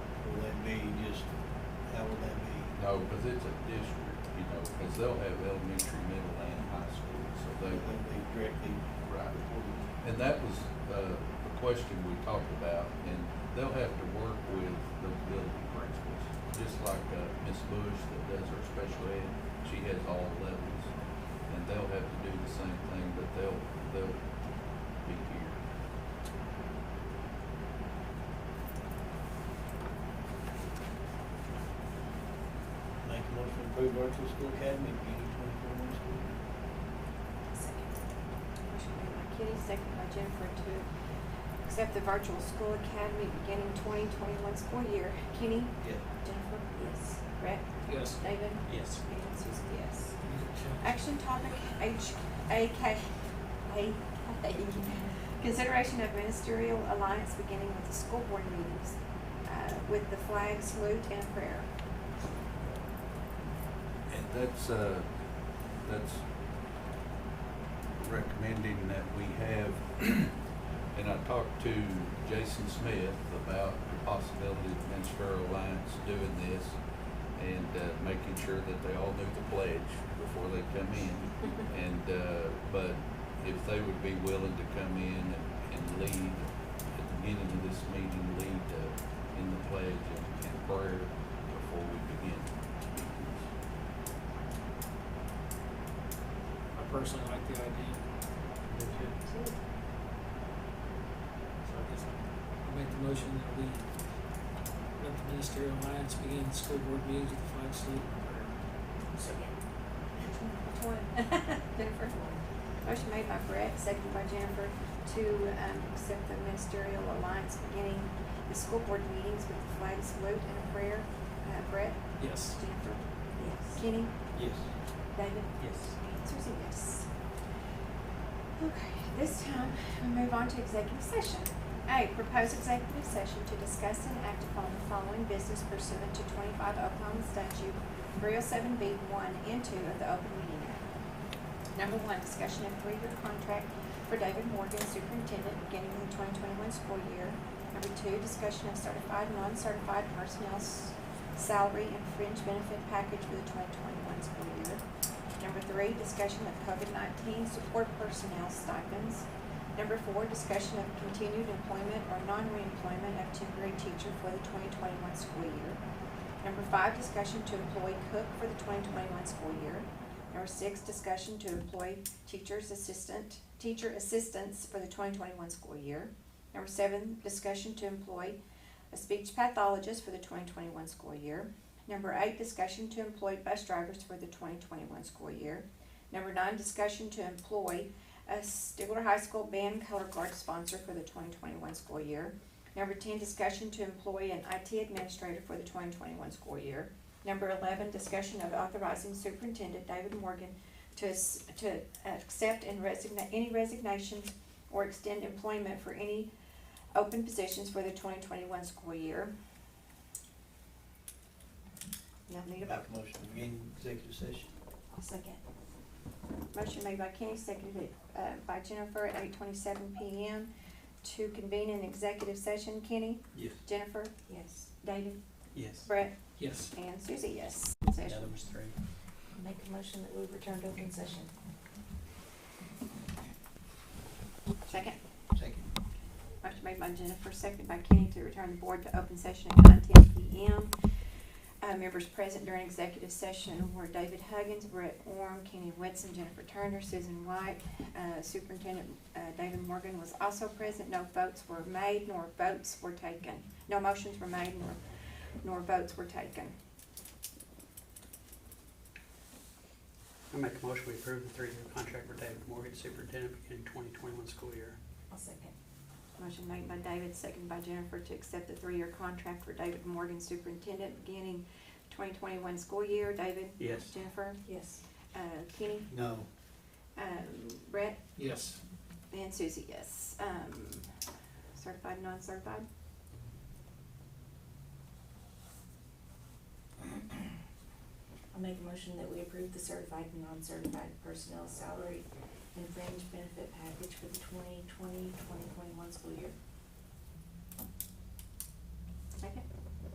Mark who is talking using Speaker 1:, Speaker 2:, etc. Speaker 1: just, how would that be?
Speaker 2: No, because it's a district, you know, because they'll have elementary, middle, and high school, so
Speaker 1: Would
Speaker 2: they,
Speaker 1: that be directly
Speaker 2: right.
Speaker 1: reported?
Speaker 2: And that was, uh, the question we talked about, and they'll have to work with the building principals, just like, uh, Ms. Bush that does her special ed, she has all levels, and they'll have to do the same thing, but they'll, they'll be here.
Speaker 1: Make a motion to approve virtual school academy, beginning twenty-four months school.
Speaker 3: Motion made by Kenny, second by Jennifer to accept the virtual school academy beginning twenty twenty-one school year. Kenny?
Speaker 1: Yeah.
Speaker 3: Jennifer? Yes. Brett?
Speaker 4: Yes.
Speaker 3: David?
Speaker 4: Yes.
Speaker 3: And Susie, yes. Action topic H, AK, AK. Consideration of ministerial alliance beginning with the school board meetings, uh, with the flag salute and prayer.
Speaker 2: And that's, uh, that's recommending that we have, and I talked to Jason Smith about the possibility of Minster Alliance doing this and, uh, making sure that they all knew the pledge before they come in. And, uh, but if they would be willing to come in and, and lead, at the beginning of this meeting, lead, uh, in the pledge and, and prayer before we begin meetings.
Speaker 4: I personally like the idea, so I guess I make the motion that we let the ministerial alliance begin the school board meetings with the flag salute.
Speaker 3: Which one? Jennifer? Motion made by Brett, seconded by Jennifer, to um, accept the ministerial alliance beginning the school board meetings with the flag salute and a prayer. Uh, Brett?
Speaker 4: Yes.
Speaker 3: Jennifer? Yes. Kenny?
Speaker 1: Yes.
Speaker 3: David?
Speaker 4: Yes.
Speaker 3: Susie, yes. Okay, this time we move on to executive session. A, proposed executive session to discuss and act upon the following business pursuant to twenty-five Oklahoma statute three oh seven B one and two of the Open Meeting Act. Number one, discussion of three-year contract for David Morgan, superintendent, beginning in the twenty twenty-one school year. Number two, discussion of certified, non-certified personnel's salary and fringe benefit package for the twenty twenty-one school year. Number three, discussion of COVID-19 support personnel stipends. Number four, discussion of continued employment or non-reemployment of temporary teacher for the 2021 school year. Number five, discussion to employ cook for the 2021 school year. Number six, discussion to employ teachers assistant, teacher assistants for the 2021 school year. Number seven, discussion to employ a speech pathologist for the 2021 school year. Number eight, discussion to employ bus drivers for the twenty twenty-one school year. Number nine, discussion to employ a Stigler High School band color guard sponsor for the twenty twenty-one school year. Number ten, discussion to employ an IT administrator for the twenty twenty-one school year. Number eleven, discussion of authorizing Superintendent David Morgan to, s- to accept and resign, any resignations or extend employment for any open positions for the twenty twenty-one school year. Now need a vote.
Speaker 1: Make a motion to begin executive session.
Speaker 3: I'll second. Motion made by Kenny, seconded uh, by Jennifer at eight twenty-seven PM to convene an executive session. Kenny?
Speaker 1: Yes.
Speaker 3: Jennifer? Yes. David?
Speaker 1: Yes.
Speaker 3: Brett?
Speaker 4: Yes.
Speaker 3: And Susie, yes.
Speaker 1: Now
Speaker 3: Session.
Speaker 1: number three.
Speaker 5: Make a motion that we return to open session.
Speaker 3: Second.
Speaker 1: Second.
Speaker 3: Motion made by Jennifer, seconded by Kenny to return the board to open session at nine ten PM. Uh, members present during executive session were David Huggins, Brett Orm, Kenny Whitson, Jennifer Turner, Susan White. Uh, Superintendent, uh, David Morgan was also present. No votes were made nor votes were taken. No motions were made nor, nor votes were taken.
Speaker 6: I make a motion we approve the three-year contract for David Morgan, superintendent, beginning twenty twenty-one school year.
Speaker 5: I'll second.
Speaker 3: Motion made by David, seconded by Jennifer to accept the three-year contract for David Morgan, superintendent, beginning twenty twenty-one school year. David?
Speaker 6: Yes.
Speaker 3: Jennifer?
Speaker 5: Yes.
Speaker 3: Uh, Kenny?
Speaker 1: No.
Speaker 3: Um, Brett
Speaker 4: Yes.
Speaker 3: and Susie, yes. Um, certified, non-certified?
Speaker 5: I'll make a motion that we approve the certified and non-certified personnel salary and fringe benefit package for the 2020-2021 school year.